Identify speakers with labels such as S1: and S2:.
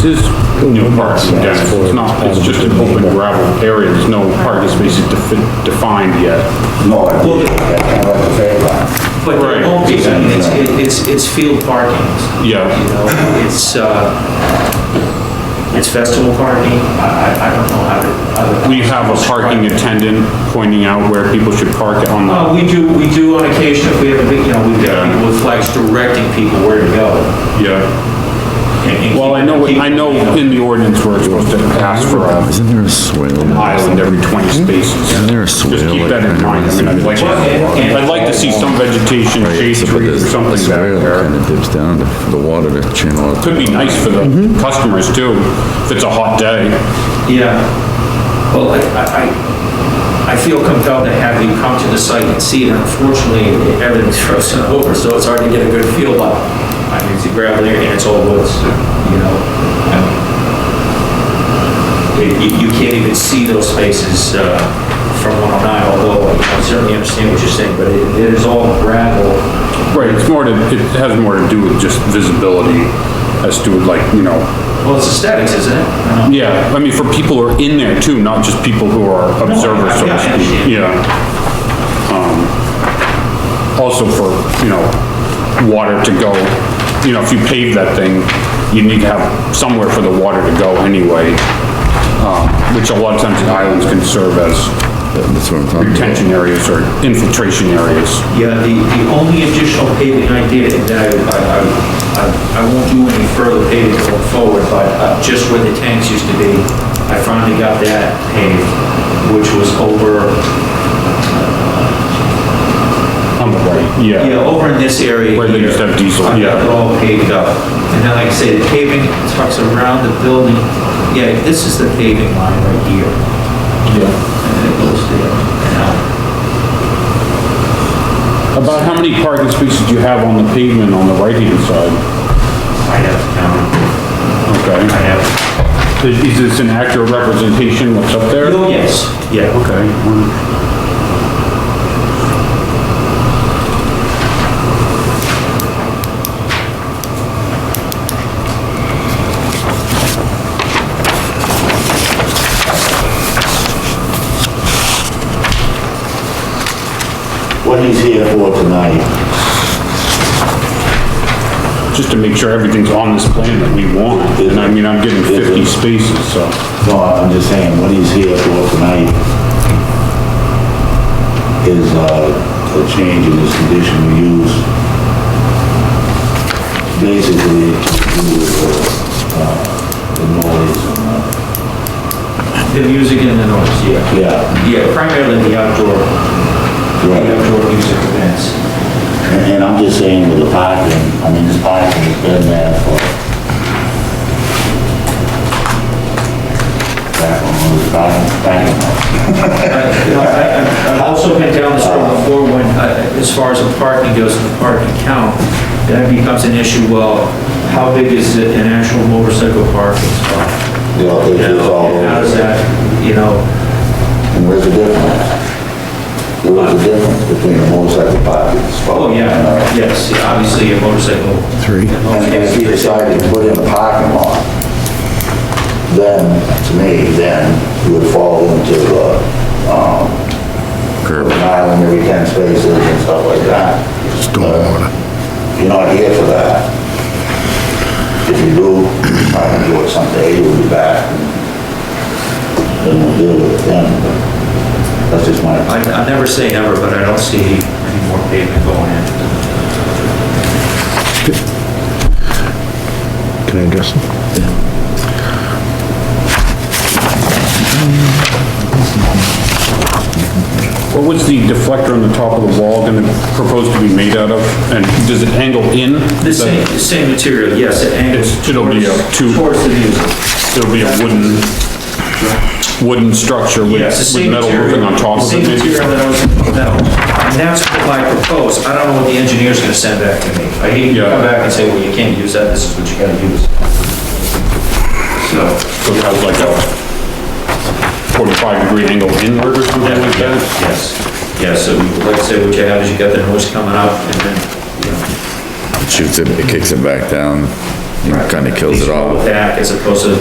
S1: This is new parking, guys. It's not, it's just an open gravel area. There's no parking spaces defi- defined yet.
S2: No, I did, I kind of like the fair one.
S3: But there
S1: Right.
S3: won't be, I mean, it's, it's, it's field parking.
S1: Yeah.
S3: You know, it's, uh, it's festival parking, I, I, I don't know how to, how to.
S1: We have a parking attendant pointing out where people should park on the,
S3: Uh, we do, we do on occasion, if we have a big, you know, we've got
S1: Yeah.
S3: people with flags directing people where to go.
S1: yeah.
S3: and- and
S1: Well, I know,
S3: keep-
S1: I know in the ordinance we're supposed to ask for a
S4: Isn't there a swale?
S1: island every 20 spaces.
S4: Isn't there a
S1: Just
S4: swale?
S1: keep that in mind. I mean, I'd like, I'd like to see some vegetation, shade tree or something back
S4: Kind
S1: there.
S4: of dips down to the water to channel it.
S1: Could be nice for the
S4: Mm-hmm.
S1: customers too, if it's a hot day.
S3: Yeah, well, I, I- I, I feel compelled to have you come to the site and see it. Unfortunately, everything's frozen over, so it's hard to get a good feel, but I mean, it's a gravel area and it's all woods, you know? and You, you- you can't even see those spaces uh, from 109, although I certainly understand what you're saying, but it it is all gravel.
S1: Right, it's more to, it has more to do with just visibility as to like, you know,
S3: Well, it's aesthetics, isn't it? I don't know.
S1: yeah, I mean, for people who are in there too, not just people who are observers, so
S3: yeah,
S1: to
S3: I
S1: speak,
S3: understand.
S1: yeah. Um, Also for, you know, water to go, you know, if you pave that thing, you need to have somewhere for the water to go anyway, um, which a lot of times the islands can serve as
S4: That's what I'm talking about.
S1: retention areas or infiltration areas.
S3: Yeah, the, the only additional paving I did, and I, I, I- I, I won't do any further paving going forward, but uh, just where the tanks used to be, I finally got that paved, which was over,
S1: On the right,
S3: yeah, over in this area.
S1: Where they used to have diesel,
S3: I got
S1: yeah.
S3: it all paved up. And then, like I say, the paving tucks around the building. Yeah, this is the paving line right here,
S1: Yeah.
S3: and it goes there. and out.
S1: About how many parking spaces do you have on the pavement on the right-hand side?
S3: I have town, I
S1: Okay.
S3: have.
S1: Is is this an accurate representation what's up there?
S3: Oh, yes, yeah.
S1: Okay. one-
S2: What he's here for tonight,
S1: Just to make sure everything's on this plan that we want. And I mean, I'm getting 50 spaces, so.
S2: no, I'm just saying, what he's here for tonight is, uh, a change in his conditional use. Basically, to do with, uh, the noise and, uh,
S3: The music and the noise, yeah.
S2: yeah,
S3: Yeah, primarily the outdoor, the
S2: right.
S3: outdoor music events.
S2: And and I'm just saying with the parking, I mean, this parking has been there for... Back on the back, back.
S3: You know, I- I- I've also been down this road before when, uh, as far as the parking goes, the parking count, that becomes an issue, well, how big is it an actual motorcycle parking spot?
S2: You know,
S3: You
S2: it's all
S3: know, and How does
S2: over.
S3: that, you know,
S2: And where's the difference? There was a difference between a motorcycle parking spot.
S3: oh, yeah, yes, yeah, obviously a motorcycle. Three.
S2: And if you decided to put in a parking lot, then, to me, then you would fall into, uh, um, an island every 10 spaces and stuff like that. Stormwater. You're not here for that. If you do, I can do it someday, you'll be back. and Then we'll deal with it then, but that's just my opinion.
S3: I, I never say never, but I don't see any more pavement going in.
S5: Can I address him?
S1: What was the deflector on the top of the wall gonna propose to be made out of? And does it angle in?
S3: The same, the same material, yes, it angles
S1: It's- it'll be
S3: towards,
S1: a two-
S3: towards the music.
S1: There'll be a wooden, wooden structure with
S3: Yes, the
S1: with
S3: same
S1: metal roofing
S3: material.
S1: on top of it.
S3: Same
S1: maybe?
S3: material that I was, metal. And that's what I propose. I don't know what the engineer's gonna send back to me. I hate to
S1: Yeah.
S3: come back and say, well, you can't use that, this is what you gotta use. So,
S1: So it has like a 45 degree angle inward or something like that?
S3: yes, yeah, so like I said, what you have is you got the noise coming up and then, you know,
S4: Shoots it, it kicks it back down. It kinda kills it
S3: Leach
S4: all.
S3: With that, as opposed to